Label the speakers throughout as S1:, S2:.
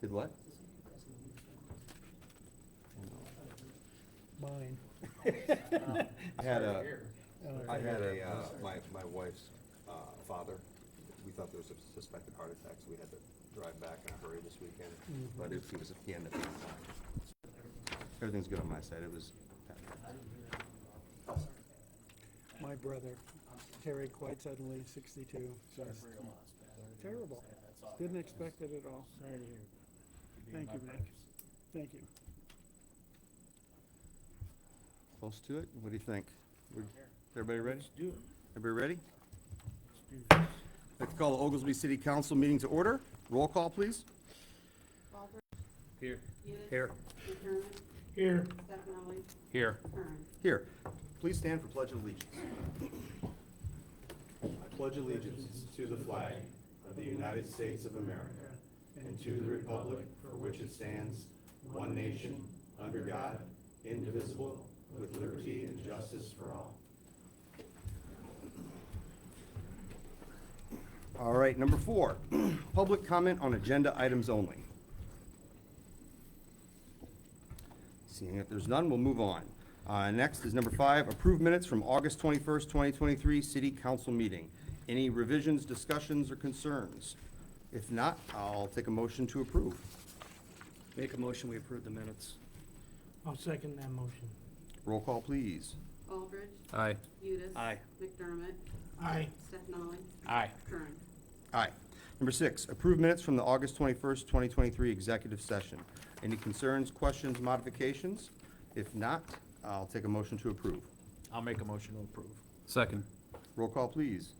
S1: Did what?
S2: Mine.
S1: I had a,
S2: Uh,
S1: I had a, uh, my, my wife's, uh, father, we thought there was a suspected heart attack, so we had to drive back in a hurry this weekend, but if he was, he ended up being fine. Everything's good on my side, it was,
S2: My brother, Terry, quite suddenly, sixty-two. Just Terrible. Didn't expect it at all.
S3: Sorry to hear.
S2: Thank you, Mike. Thank you.
S1: close to it, what do you think? We're- Everybody ready?
S3: Let's do it.
S1: Everybody ready?
S3: Let's do this.
S1: I'd like to call the Oglesby City Council meeting to order, roll call, please.
S4: Baldridge,
S3: Here.
S4: Hewitt,
S1: Here.
S4: McDermott,
S3: Here.
S4: Stefani,
S3: Here.
S4: Kern.
S1: Here, please stand for pledge of allegiance.
S5: I pledge allegiance to the flag of the United States of America and to the republic for which it stands, one nation, under God, indivisible, with liberty and justice for all.
S1: All right, number four, public comment on agenda items only. Seeing that there's none, we'll move on. Uh, Next is number five, approve minutes from August 21st, 2023, city council meeting. Any revisions, discussions, or concerns? If not, I'll take a motion to approve.
S6: Make a motion, we approve the minutes.
S3: I'll second that motion.
S1: Roll call, please.
S4: Baldridge,
S6: Aye.
S4: Udis.
S6: Aye.
S4: McDermott,
S3: Aye.
S4: Stefani,
S3: Aye.
S4: Kern.
S1: Aye. Number six, approve minutes from the August 21st, 2023 executive session. Any concerns, questions, modifications? If not, I'll take a motion to approve.
S3: I'll make a motion to approve.
S6: Second.
S1: Roll call, please.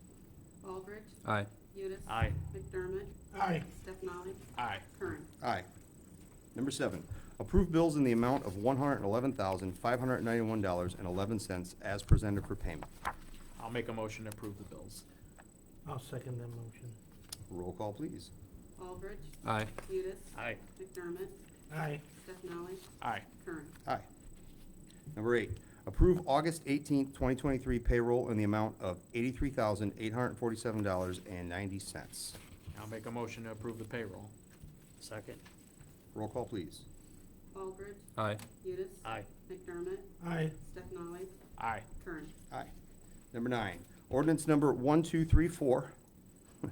S4: Baldridge,
S6: Aye.
S4: Udis.
S3: Aye.
S4: McDermott,
S3: Aye.
S4: Stefani,
S3: Aye.
S4: Kern.
S1: Aye. Number seven, approve bills in the amount of one hundred and eleven thousand, five hundred and ninety-one dollars and eleven cents as presented for payment.
S7: I'll make a motion to approve the bills.
S3: I'll second that motion.
S1: Roll call, please.
S4: Baldridge,
S6: Aye.
S4: Udis.
S7: Aye.
S4: McDermott,
S3: Aye.
S4: Stefani,
S7: Aye.
S4: Kern.
S1: Aye. Number eight, approve August eighteenth, twenty twenty-three payroll in the amount of eighty-three thousand, eight hundred and forty-seven dollars and ninety cents.
S7: I'll make a motion to approve the payroll.
S6: Second.
S1: Roll call, please.
S4: Baldridge,
S6: Aye.
S4: Udis.
S7: Aye.
S4: McDermott,
S3: Aye.
S4: Stefani,
S7: Aye.
S4: Kern.
S1: Aye. Number nine, ordinance number one, two, three, four,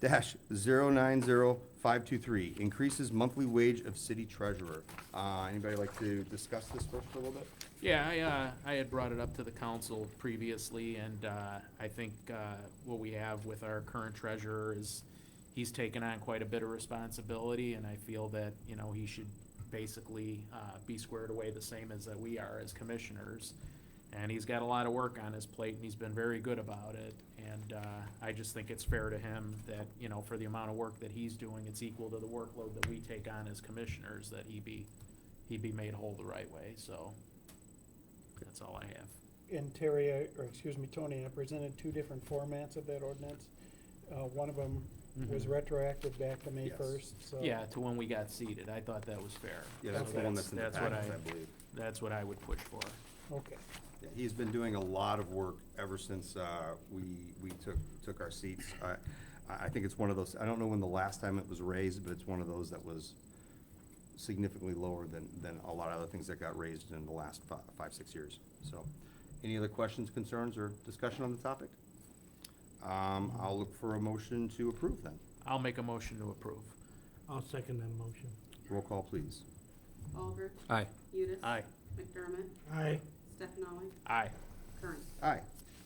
S1: dash, zero, nine, zero, five, two, three, increases monthly wage of city treasurer. Uh, anybody like to discuss this first for a little bit?
S7: Yeah, I, uh, I had brought it up to the council previously, and, uh, I think, uh, what we have with our current treasurer is he's taken on quite a bit of responsibility, and I feel that, you know, he should basically, uh, be squared away the same as that we are as commissioners. And he's got a lot of work on his plate, and he's been very good about it, and, uh, I just think it's fair to him that, you know, for the amount of work that he's doing, it's equal to the workload that we take on as commissioners, that he be, he be made whole the right way, so. That's all I have.
S2: And Terry, I- or excuse me, Tony, I presented two different formats of that ordinance. Uh, one of them was
S1: Mm-hmm.
S7: Mhm.
S2: retroactive back to May
S1: Yes.
S2: first, so.
S7: Yeah, to when we got seated, I thought that was fair.
S1: Yeah, that's the one that's in the
S7: That's what
S1: package, I
S7: I,
S1: believe.
S7: that's what I would push for.
S2: Okay.
S1: Yeah, He's been doing a lot of work ever since uh, we, we took, took our seats. I, I I think it's one of those, I don't know when the last time it was raised, but it's one of those that was significantly lower than, than a lot of other things that got raised in the last fi- five, six years. So, any other questions, concerns, or discussion on the topic? Um, I'll look for a motion to approve then.
S7: I'll make a motion to approve.
S3: I'll second that motion.
S1: Roll call, please.
S4: Baldridge,
S6: Aye.
S4: Udis.
S7: Aye.
S4: McDermott,
S3: Aye.
S4: Stefani,
S7: Aye.
S4: Kern.
S1: Aye.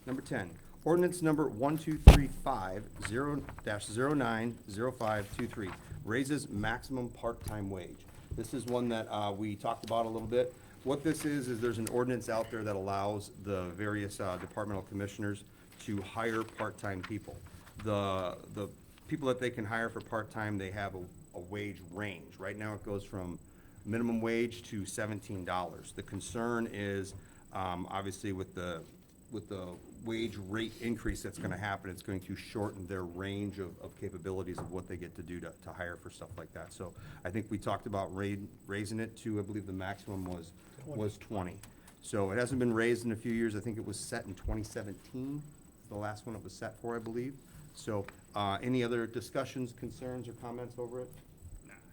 S1: Number ten, ordinance number one, two, three, five, zero, dash, zero, nine, zero, five, two, three, raises maximum part-time wage. This is one that, uh, we talked about a little bit. What this is, is there's an ordinance out there that allows the various, uh, departmental commissioners to hire part-time people. The, the people that they can hire for part-time, they have a, a wage range. Right now, it goes from minimum wage to seventeen dollars. The concern is, um, obviously with the, with the wage rate increase that's gonna happen, it's going to shorten their range of, of capabilities of what they get to do to, to hire for stuff like that. So I think we talked about ra- raising it to, I believe the maximum was, was twenty. So it hasn't been raised in a few years. I think it was set in twenty seventeen, the last one it was set for, I believe. So, uh, any other discussions, concerns, or comments over it?